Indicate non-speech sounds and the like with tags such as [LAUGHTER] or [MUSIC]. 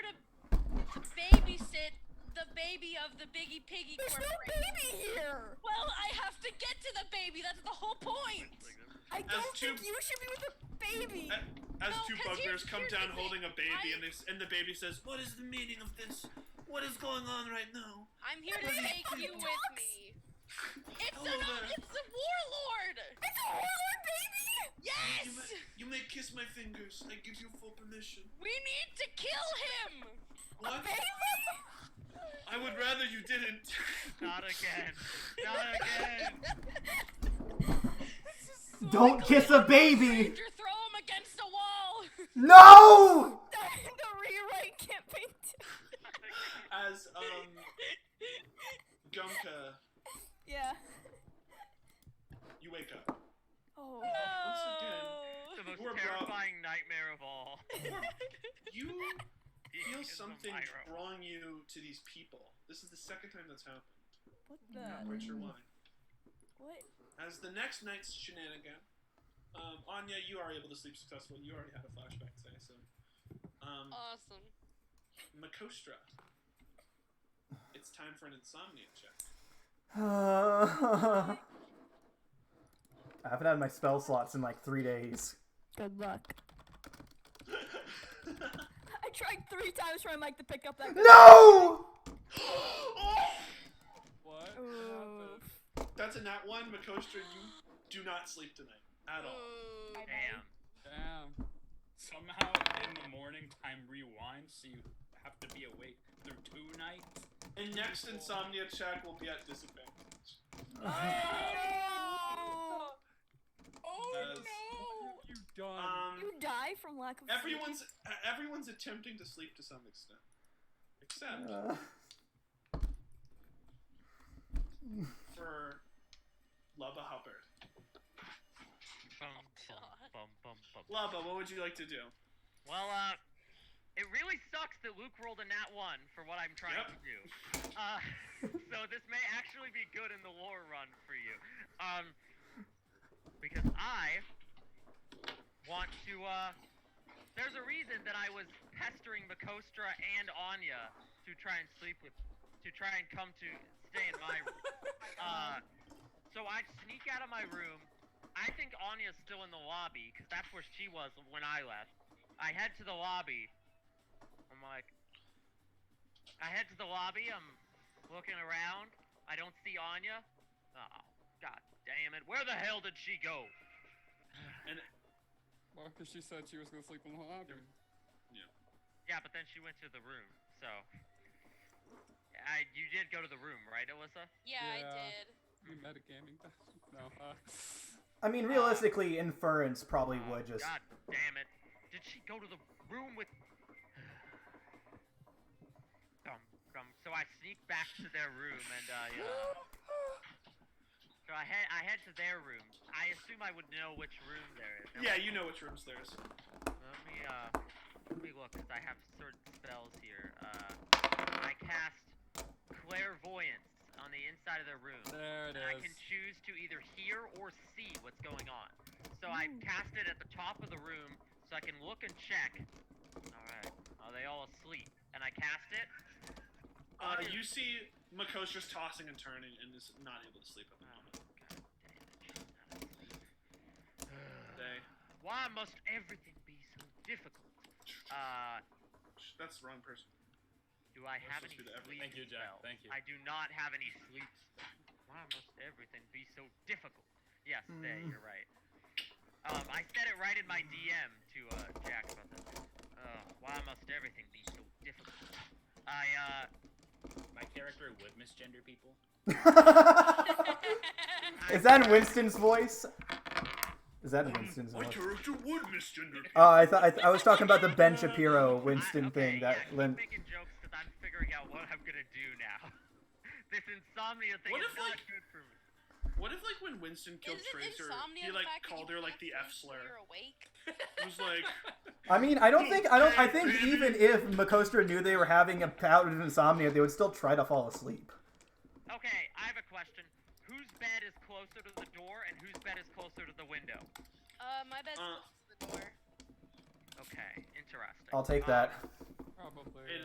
baby of the Biggie Piggy There's no Corporation. baby here. Well, I have to get to the baby. That's the whole point. I don't two- think you should be with a baby. A- As No, two 'cause bugbears here's- come here's down the holding a thing. baby, I- and, they, s- and the baby says, "What is the meaning of this? What is going on right now?" I'm here to take you with me. It's Hello an, there. it's a warlord. It's a horror baby. Yes. You may, you may kiss my fingers. I give you full permission. We need to kill him. What? Baby. I would rather you didn't. [LAUGHS] Not again. Not again. Don't kiss a baby! Ranger, throw him against the [LAUGHS] wall. [LAUGHS] No! [SIGHS] The, [LAUGHS] the rewrite campaign. As um, Gumka, Yeah. you wake up. Oh. Once again, No. The most We're bro- terrifying nightmare of all. you He feel is a something pyro. drawing you to these people. This is the second time that's happened. What Mm. Not the? quite sure why. What? As the next night's shenanigan, um, Anya, you are able to sleep successfully. You already had a flashback today, so. Um, Awesome. Makostra, it's time for an insomnia check. I haven't had my spell slots in like three days. Good luck. I tried three times for my mic to pick up [LAUGHS] that. No! What? Ooh. happened? That's a nat one, Makostra. You do not sleep tonight at all. Ooh. Damn. Damn. Somehow in the morning time rewinds, so you have to be awake through two nights. And next insomnia check will be at disadvantage. Oh, As What have you done? um, You die from lack of. sleep. everyone's e-, everyone's attempting to sleep to some extent, except Uh, for Lubba Hubbard. Bum, bum, bum, bum, bum. Lubba, what would you like to do? Well, uh, it really sucks that Luke rolled a nat one for what I'm trying Yep. to do. Uh, [LAUGHS] so this may actually be good in the lore run for you. Um, because I want to, uh, there's a reason that I was pestering Makostra and Anya to try and sleep with, to try and come to stay in my room. Uh, so I sneak out of my room. I think Anya's still in the lobby because that's where she was when I left. I head to the lobby. I'm like, I head to the lobby. I'm looking around. I don't see Anya. Oh, god damn it! Where the hell did she go? Well, 'cause she said she was gonna sleep in the lobby. Yeah, but then she went to the room. So, I you did go to the room, right, Alyssa? Yeah, Yeah. I did. You metagaming? no. Uh, I mean, realistically, inference probably Oh would just. God damn it! Did she go to the room with? Dum, dum. So I sneak back to their room and I. Uh, so I head I head to their room. I assume I would know which room there is. Yeah, you know which rooms there's. Let me uh, let me look 'cause I have certain spells here. Uh, I cast clairvoyance on the inside of their room. there it and I can is. choose to either hear or see what's going on. So I cast it at the top of the room so I can look and check. Alright, are they all asleep? And I cast it. Uh, you see Makostra's tossing and turning and is not able to sleep at the moment. They, Why must everything be so difficult? Uh, that's the wrong person. do I have Let's just do any the every- sleep Thank you, Jack. spells? Thank you. I do not have any sleep spells. Why must everything be so difficult? Yes, there, Mm. you're right. Um, I said it right in my DM to uh, Jack about this. Uh, why must everything be so difficult? I, uh, My character would misgender people. I- [LAUGHS] Is that in Winston's voice? Um, Is that in Winston's voice? character would misgender. Oh, I thought I, th- I was talking about the Ben Shapiro Winston I, okay, thing that yeah, keep Lin- making jokes because I'm figuring out what I'm gonna do now. [LAUGHS] this insomnia thing What is if, not like- good for me. What if, like, when Winston killed [LAUGHS] Isn't Tracer, insomnia he the like fact that called you her like can't sleep the F till slur? You're awake. It was like, I mean, I don't think I don't. I think [LAUGHS] even if Makostra knew they were having a bout of insomnia, they would still try to fall asleep. Okay, I have a question. Whose bed is closer to the door and whose bed is closer to the window? Uh, my bed's Uh. close to the door. Okay, interesting. I'll take Um, that. Probably. It